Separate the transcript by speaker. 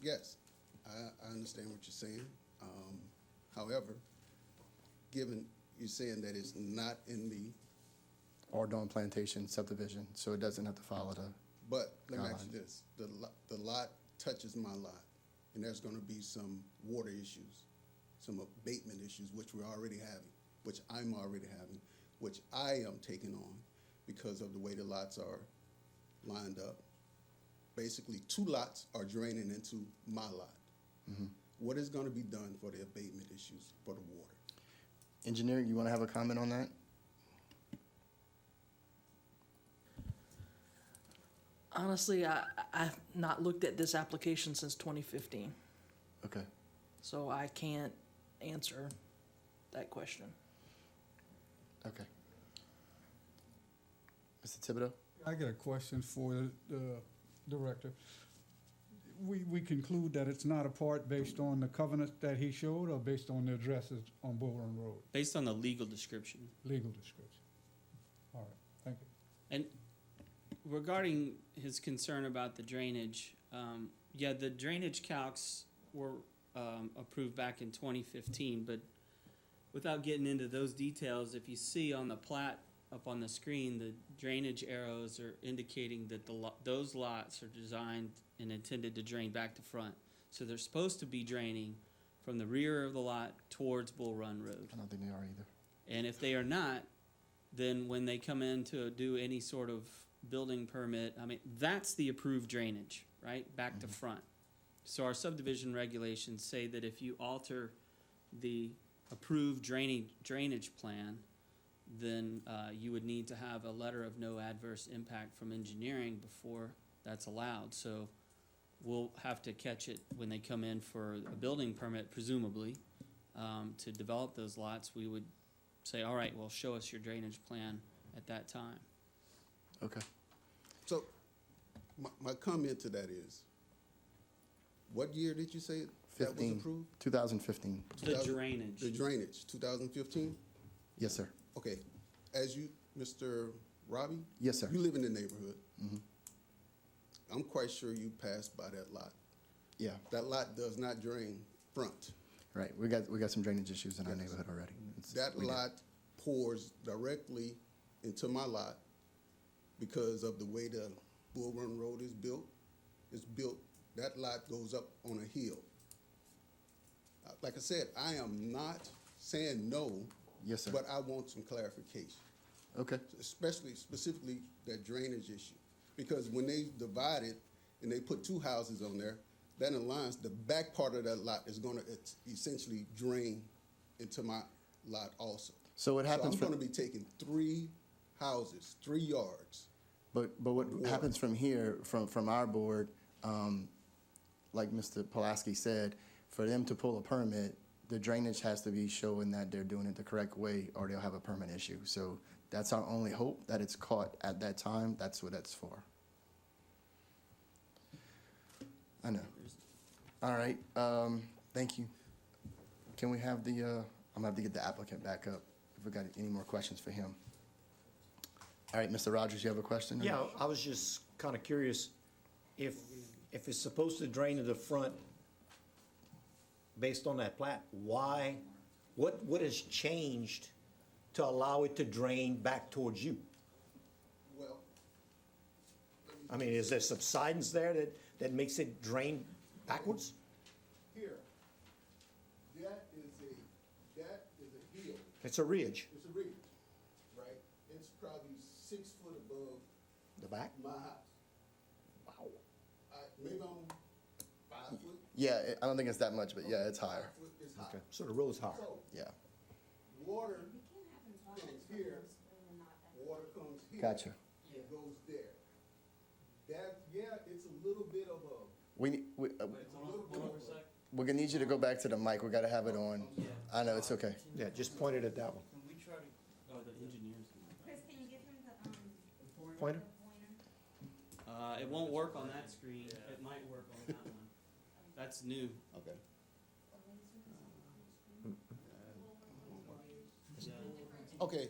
Speaker 1: yes, I, I understand what you're saying. Um, however, given you're saying that it's not in me,
Speaker 2: or Dawn Plantation subdivision, so it doesn't have to follow the,
Speaker 1: but let me ask you
Speaker 2: Guideline.
Speaker 1: this, the lot, the lot touches my lot, and there's gonna be some water issues, some abatement issues, which we're already having, which I'm already having, which I am taking on because of the way the lots are lined up. Basically, two lots are draining into my lot. What is gonna be done for the abatement issues for the water?
Speaker 2: engineering, you wanna have a comment on that?
Speaker 3: Honestly, I, I- I've not looked at this application since 2015,
Speaker 2: Okay.
Speaker 3: so I can't answer that question.
Speaker 2: Okay. Mr. Thibodeau?
Speaker 4: I got a question for the- the director. We, we conclude that it's not a part based on the covenant that he showed or based on the addresses on Bullrun Road,
Speaker 5: based on the legal description.
Speaker 4: legal description? All right, thank you.
Speaker 5: And regarding his concern about the drainage, um, yeah, the drainage calcs were um, approved back in 2015, but without getting into those details, if you see on the plat up on the screen, the drainage arrows are indicating that the lo- those lots are designed and intended to drain back to front. So they're supposed to be draining from the rear of the lot towards Bull Run Road.
Speaker 2: I don't think they are either.
Speaker 5: And if they are not, then when they come in to do any sort of building permit, I mean, that's the approved drainage, right? Back to front. So our subdivision regulations say that if you alter the approved draining, drainage plan, then, uh, you would need to have a letter of no adverse impact from engineering before that's allowed. So we'll have to catch it when they come in for a building permit presumably, um, to develop those lots. We would say, all right, well, show us your drainage plan at that time.
Speaker 2: Okay.
Speaker 1: So, my, my comment to that is, what year did you say that was
Speaker 2: Fifteen.
Speaker 1: approved?
Speaker 2: Two thousand fifteen.
Speaker 5: The
Speaker 1: 2000
Speaker 5: drainage.
Speaker 1: The drainage, two thousand fifteen?
Speaker 2: Yes, sir.
Speaker 1: Okay, as you, Mr. Robbie?
Speaker 2: Yes, sir. Mm-hmm.
Speaker 1: You live in the neighborhood. I'm quite sure you passed by that lot.
Speaker 2: Yeah,
Speaker 1: That lot does not drain front.
Speaker 2: right. We got, we got some drainage issues in our
Speaker 1: Yes.
Speaker 2: neighborhood already. It's-
Speaker 1: That
Speaker 2: we did.
Speaker 1: lot pours directly into my lot because of the way the Bull Run Road is built. It's built, that lot goes up on a hill. Uh, Like I said, I am not saying no.
Speaker 2: Yes, sir.
Speaker 1: But I want some clarification,
Speaker 2: Okay,
Speaker 1: especially specifically that drainage issue. Because when they divided and they put two houses on there, that aligns, the back part of that lot is gonna es- essentially drain into my lot also.
Speaker 2: So what happens
Speaker 1: So
Speaker 2: from-
Speaker 1: I'm gonna be taking three houses, three yards.
Speaker 2: but, but what
Speaker 1: Water.
Speaker 2: happens from here, from, from our board, um, like Mr. Pulaski said, for them to pull a permit, the drainage has to be showing that they're doing it the correct way or they'll have a permit issue. So that's our only hope, that it's caught at that time. That's what that's for. I know. All right, um, thank you. Can we have the, uh, I'm gonna have to get the applicant back up if we got any more questions for him. All right, Mr. Rogers, you have a question? or-
Speaker 6: Yeah, I was just kind of curious if, if it's supposed to drain to the front based on that plat, why, what, what has changed to allow it to drain back towards you?
Speaker 1: Well,
Speaker 6: I mean, is there subsidence there that, that makes it drain backwards?
Speaker 1: here, that is a, that is a hill.
Speaker 6: It's a ridge,
Speaker 1: It's a ridge, right? It's probably six foot above
Speaker 6: the back?
Speaker 1: my house.
Speaker 6: Wow.
Speaker 1: I, maybe I'm five foot,
Speaker 2: Yeah, it- I don't think it's that much, but yeah, it's higher.
Speaker 1: foot is high.
Speaker 6: So the road's higher.
Speaker 1: So
Speaker 2: Yeah.
Speaker 1: water
Speaker 7: We can have them talk
Speaker 1: comes
Speaker 7: to
Speaker 1: here,
Speaker 7: us when we're not at
Speaker 1: water comes here.
Speaker 2: Gotcha.
Speaker 1: It goes there. That, yeah, it's a little bit of a,
Speaker 2: We, ne- we, uh,
Speaker 1: it's a little bit of a.
Speaker 2: we're gonna need you to go back to the mic. We gotta have it on. I know, it's okay.
Speaker 6: Yeah, just pointed at that one.
Speaker 5: Can we try to, oh, the engineers.
Speaker 7: Chris, can you give him the, um,
Speaker 6: Pointer?
Speaker 7: the pointer?
Speaker 5: Uh, it won't work on that screen, it might work on that one. That's new.
Speaker 1: Okay.
Speaker 5: Yeah.
Speaker 1: Okay,